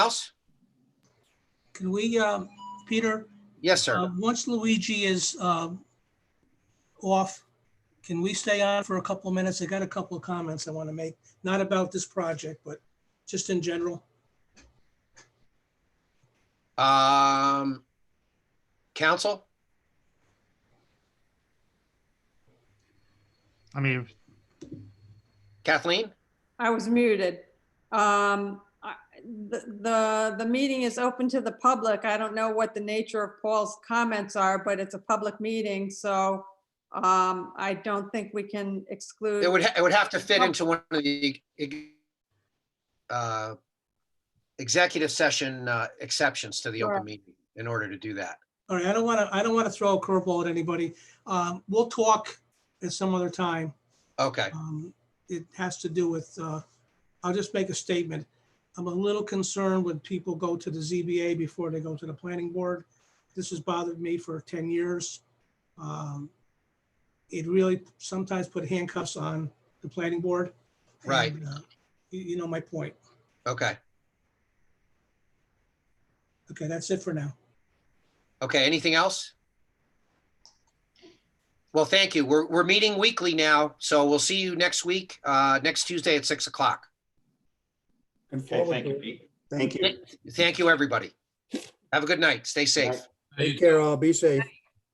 Can we, um, Peter, Yes, uh, sir. once Luigi is um, off, can we stay on for a couple of minutes? I got a couple of comments I want to make, not about this project, but just in general. Um, counsel? I mean, Kathleen? I was muted. Um, I- The, the- the meeting is open to the public. I don't know what the nature of Paul's comments are, but it's a public meeting, so um, I don't think we can exclude. It would, ha- it would have to fit into one of the e- uh, executive session uh, exceptions to the open Sure. meeting in order to do that. All right, I don't want to, I don't want to throw a curveball at anybody. Um, We'll talk at some other time. Okay, Um, It has to do with, uh, I'll just make a statement. I'm a little concerned when people go to the ZBA before they go to the planning board. This has bothered me for 10 years. Um, It really sometimes put handcuffs on the planning board. Right. And, uh, You you know my point. okay, Okay, that's it for now. okay. Anything else? Well, thank you. We're, we're meeting weekly now, so we'll see you next week, uh, next Tuesday at 6 o'clock. Okay, thank you, Pete. Thank you. Thank you, everybody. Have a good night. Stay safe. Take care all. Be safe.